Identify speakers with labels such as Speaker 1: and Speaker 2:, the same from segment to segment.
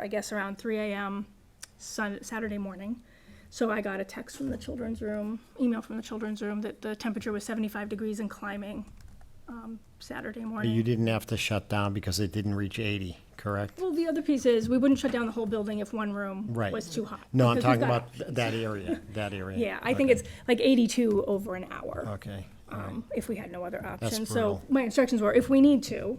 Speaker 1: I guess around three AM Sun, Saturday morning. So I got a text from the children's room, email from the children's room that the temperature was seventy-five degrees and climbing, um, Saturday morning.
Speaker 2: You didn't have to shut down because it didn't reach 80, correct?
Speaker 1: Well, the other piece is, we wouldn't shut down the whole building if one room
Speaker 2: Right.
Speaker 1: was too hot.
Speaker 2: No, I'm
Speaker 1: because we've
Speaker 2: talking
Speaker 1: got-
Speaker 2: about th- that area, that area.
Speaker 1: Yeah, I think
Speaker 2: Okay.
Speaker 1: it's like eighty-two over an hour,
Speaker 2: Okay,
Speaker 1: um, if we had no other option. So
Speaker 2: brutal.
Speaker 1: my instructions were, if we need to,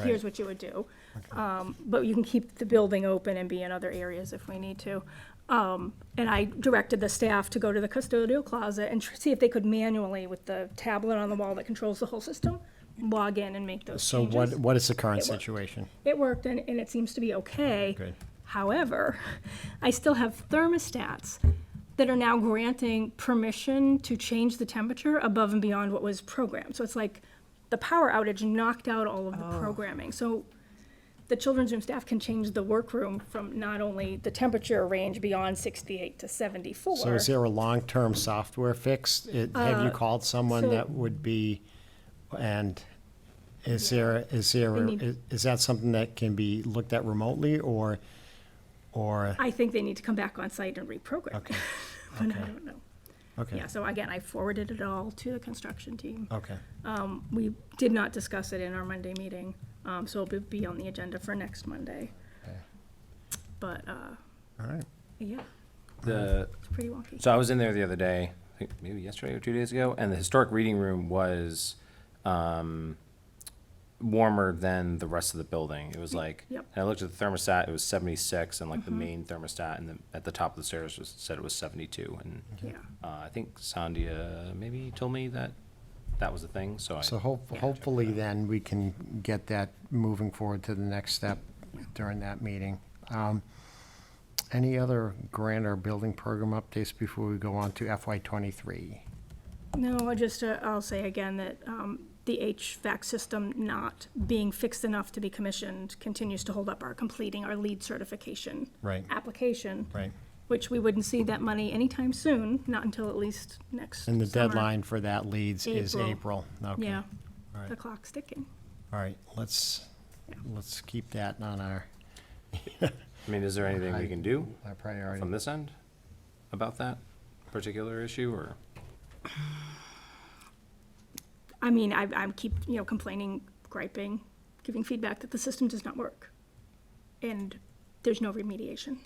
Speaker 1: here's
Speaker 2: Right.
Speaker 1: what you would do. Um, but you can keep the building open and be in other areas if we need to. Um, and I directed the staff to go to the custodial closet and tr- see if they could manually, with the tablet on the wall that controls the whole system, log in and make those
Speaker 2: so what,
Speaker 1: changes.
Speaker 2: what is the current
Speaker 1: It worked.
Speaker 2: situation?
Speaker 1: It worked and, and it seems to be okay.
Speaker 2: Good.
Speaker 1: However, I still have thermostats that are now granting permission to change the temperature above and beyond what was programmed. So it's like the power outage knocked out all of the programming. So the children's room staff can change the workroom from not only the temperature range beyond 68 to 74.
Speaker 2: So is there a long-term software fix? It- Have you called someone
Speaker 1: Uh, so-
Speaker 2: that would be, and is there, is there,
Speaker 1: need-
Speaker 2: is- is that something that can be looked at remotely or, or,
Speaker 1: I think they need to come back on site and reprogram.
Speaker 2: Okay.
Speaker 1: but I
Speaker 2: Okay.
Speaker 1: don't know.
Speaker 2: okay,
Speaker 1: Yeah, so again, I forwarded it all to the construction team.
Speaker 2: okay.
Speaker 1: Um, we did not discuss it in our Monday meeting, um, so it'll be on the agenda for next Monday.
Speaker 2: Okay.
Speaker 1: But, uh,
Speaker 2: All right,
Speaker 1: yeah,
Speaker 3: The,
Speaker 1: it's pretty wonky.
Speaker 3: so I was in there the other day, I think maybe yesterday or two days ago, and the historic reading room was um, warmer than the rest of the building. It was like,
Speaker 1: Yep. Mm-hmm.
Speaker 3: and I looked at the thermostat, it was 76, and like the main thermostat and the, at the top of the stairs was, said it was 72. And
Speaker 1: Yeah,
Speaker 3: uh, I think Sandia maybe told me that that was the thing. So,
Speaker 2: so
Speaker 3: I,
Speaker 2: hope- hopefully then we can get that moving forward to the next step during that meeting. Um, Any other grant or building program updates before we go on to FY twenty-three?
Speaker 1: no, I just, uh, I'll say again that, um, the HVAC system not being fixed enough to be commissioned continues to hold up our completing our lead certification.
Speaker 2: Right.
Speaker 1: Application.
Speaker 2: Right.
Speaker 1: Which we wouldn't see that money anytime soon, not until at least next
Speaker 2: And the
Speaker 1: summer.
Speaker 2: deadline for that leads is
Speaker 1: April.
Speaker 2: April. Okay.
Speaker 1: Yeah,
Speaker 2: All right.
Speaker 1: the clock's ticking.
Speaker 2: All right, let's, let's keep that on our,
Speaker 3: I mean, is there anything we can do
Speaker 2: our
Speaker 3: from
Speaker 2: priority.
Speaker 3: this end about that particular issue or?
Speaker 1: I mean, I, I'm keep, you know, complaining, griping, giving feedback that the system does not work. And there's no remediation.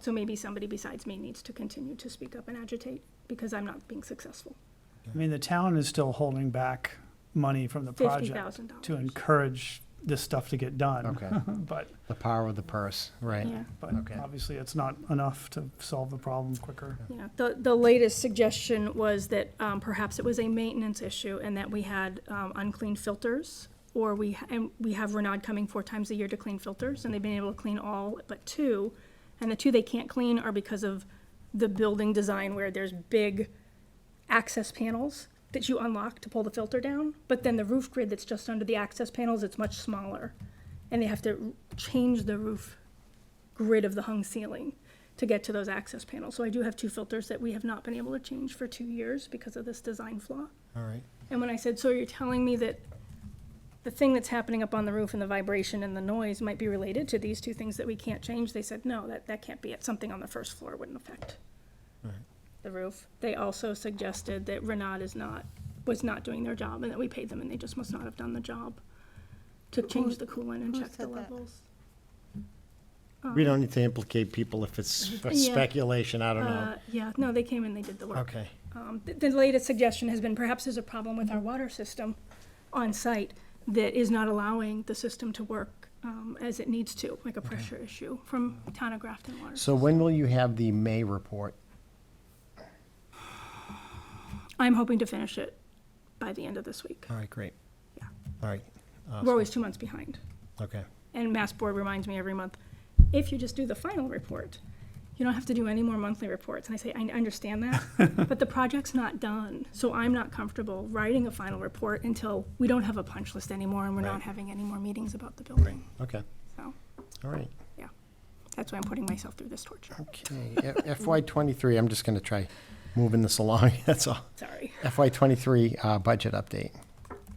Speaker 1: So maybe somebody besides me needs to continue to speak up and agitate because I'm not being successful.
Speaker 4: I mean, the town is still holding back money from the
Speaker 1: Fifty
Speaker 4: project
Speaker 1: thousand
Speaker 4: to
Speaker 1: dollars.
Speaker 4: encourage this stuff to get done.
Speaker 2: Okay.
Speaker 4: But,
Speaker 2: The power of the purse, right?
Speaker 1: Yeah,
Speaker 4: but
Speaker 2: Okay.
Speaker 4: obviously, it's not enough to solve the problem quicker.
Speaker 1: yeah. The, the latest suggestion was that, um, perhaps it was a maintenance issue and that we had, um, unclean filters. Or we, and we have Renaud coming four times a year to clean filters and they've been able to clean all but two. And the two they can't clean are because of the building design where there's big access panels that you unlock to pull the filter down, but then the roof grid that's just under the access panels, it's much smaller. And they have to change the roof grid of the hung ceiling to get to those access panels. So I do have two filters that we have not been able to change for two years because of this design flaw.
Speaker 2: All right.
Speaker 1: And when I said, so you're telling me that the thing that's happening up on the roof and the vibration and the noise might be related to these two things that we can't change, they said, no, that, that can't be it. Something on the first floor wouldn't affect the roof. They also suggested that Renaud is not, was not doing their job and that we paid them and they just must not have done the job to change the coolant and
Speaker 5: who
Speaker 1: check the
Speaker 5: said that?
Speaker 1: levels.
Speaker 2: We don't need to implicate people if it's f-
Speaker 1: Um, Yeah.
Speaker 2: speculation, I don't know.
Speaker 1: Uh, yeah, no, they came and they did the work.
Speaker 2: Okay,
Speaker 1: Um, th- The latest suggestion has been perhaps there's a problem with our water system on site that is not allowing the system to work um, as it needs to, like a pressure issue from town of Grafton Water.
Speaker 2: so when will you have the May report?
Speaker 1: I'm hoping to finish it by the end of this week.
Speaker 2: All right, great.
Speaker 1: Yeah.
Speaker 2: All right,
Speaker 1: We're always two months behind.
Speaker 2: okay.
Speaker 1: And Mass Board reminds me every month, if you just do the final report, you don't have to do any more monthly reports. And I say, I understand that, but the project's not done. So I'm not comfortable writing a final report until we don't have a punch list anymore and we're not
Speaker 2: Right.
Speaker 1: having any more meetings about the building.
Speaker 2: Okay,
Speaker 1: So,
Speaker 2: all right.
Speaker 1: yeah, that's why I'm putting myself through this torture.
Speaker 2: Oh. Okay, F- FY twenty-three, I'm just gonna try moving this along, that's all.
Speaker 1: Sorry.
Speaker 2: FY twenty-three, uh, budget update.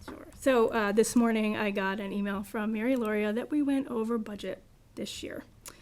Speaker 1: Sure. So uh, this morning, I got an email from Mary Loria that we went over budget this year.